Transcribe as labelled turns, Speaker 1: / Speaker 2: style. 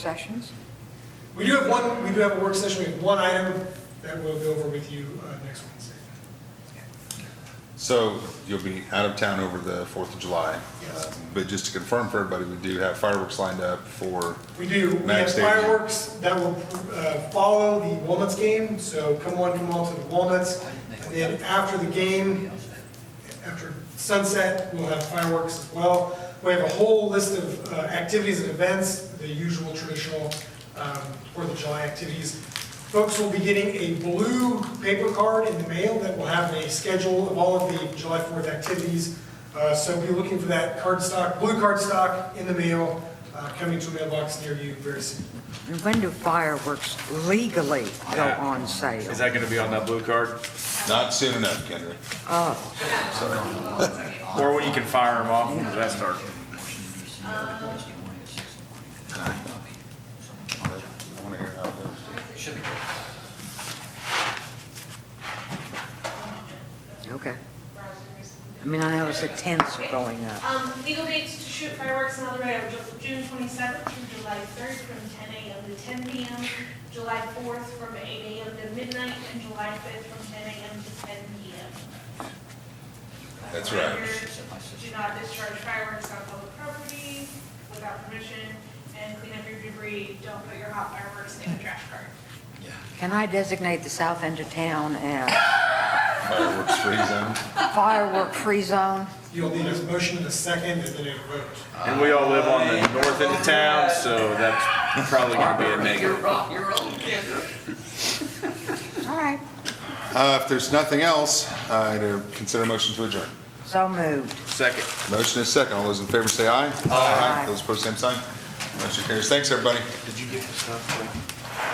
Speaker 1: sessions?
Speaker 2: We do have one, we do have a work session, we have one item that we'll go over with you uh, next Wednesday.
Speaker 3: So you'll be out of town over the Fourth of July.
Speaker 2: Yes.
Speaker 3: Um, But just to confirm for everybody, we do have fireworks lined up for,
Speaker 2: We do, we have
Speaker 3: Max Stadium.
Speaker 2: fireworks that will uh, follow the Walnuts game, so come on, come all to the Walnuts. And then after the game, after sunset, we'll have fireworks as well. We have a whole list of uh, activities and events, the usual traditional um, Fourth of July activities. Folks will be getting a blue paper card in the mail that will have a schedule of all of the July Fourth activities. Uh, So be looking for that card stock, blue card stock in the mail, uh, coming to a mailbox near you very soon.
Speaker 1: And when do fireworks legally go on sale?
Speaker 4: Is that gonna be on that blue card?
Speaker 3: not soon enough, Kendra.
Speaker 4: Or when you can fire them off, does that start?
Speaker 3: I wanna hear how it goes.
Speaker 1: Okay. I mean, I noticed the tents are going up.
Speaker 5: Um, legal dates to shoot fireworks and other items, June twenty-seventh through July third from ten AM to ten PM, July fourth from eight AM to midnight, and July fifth from ten AM to ten PM.
Speaker 3: That's right.
Speaker 5: Reminder, Do not discharge fireworks on public property without permission, and clean up your debris, don't put your hot fireworks in the trash cart.
Speaker 1: Can I designate the south end of town as
Speaker 3: Fireworks free zone.
Speaker 1: firework-free zone?
Speaker 2: You'll need a motion in a second and then a vote.
Speaker 4: And we all live on the north end of town, so that's probably gonna be a negative.
Speaker 1: All right,
Speaker 3: Uh, if there's nothing else, I'd uh, consider a motion to adjourn.
Speaker 1: so moved.
Speaker 4: Second.
Speaker 3: Motion is second. All those in favor say aye.
Speaker 1: Aye.
Speaker 3: Those opposed, same sign. Motion carries. Thanks, everybody.
Speaker 4: Did you get the stuff?